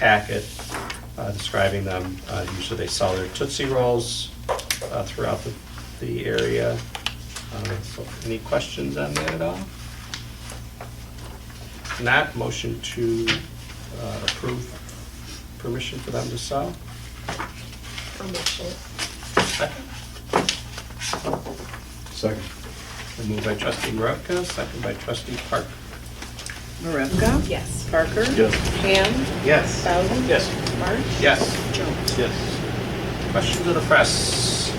packet uh, describing them. Uh, Usually they sell their Tootsie Rolls uh, throughout the, the area. Uh, so Any questions on that at all? Not motion to uh, approve permission for them to sell? Permission. Second. Second. Moved by trustee Maravka, second by trustee Park. Marevka? Yes. Parker? Yes. Ham? Yes. Bowden? Yes. March? Yes. Jones? Yes. Questions of the press?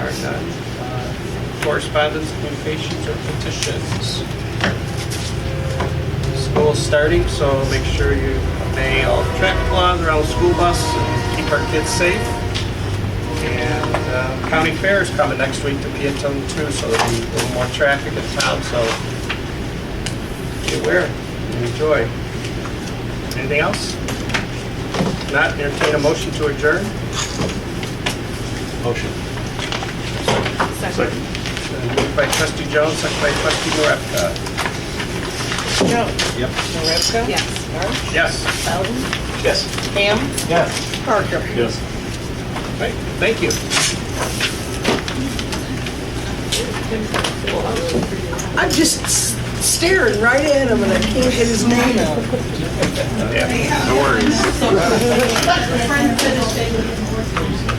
Are none. Uh, Correspondence, communications, or petitions? School's starting, so make sure you obey all the traffic laws around the school bus and keep our kids safe. And uh, county fair is coming next week to Peatone too, so there'll be a little more traffic in town, so be aware and enjoy. Anything else? Not entertain a motion to adjourn? Motion. Second. Moved by trustee Jones, second by trustee Maravka. Jones? Yep. Marevka? Yes. March? Yes. Bowden? Yes. Ham? Yes. Parker? Yes. Right, thank you. I'm just s- staring right at him and I can't get his name out. Yeah, No worries. Friends finishing.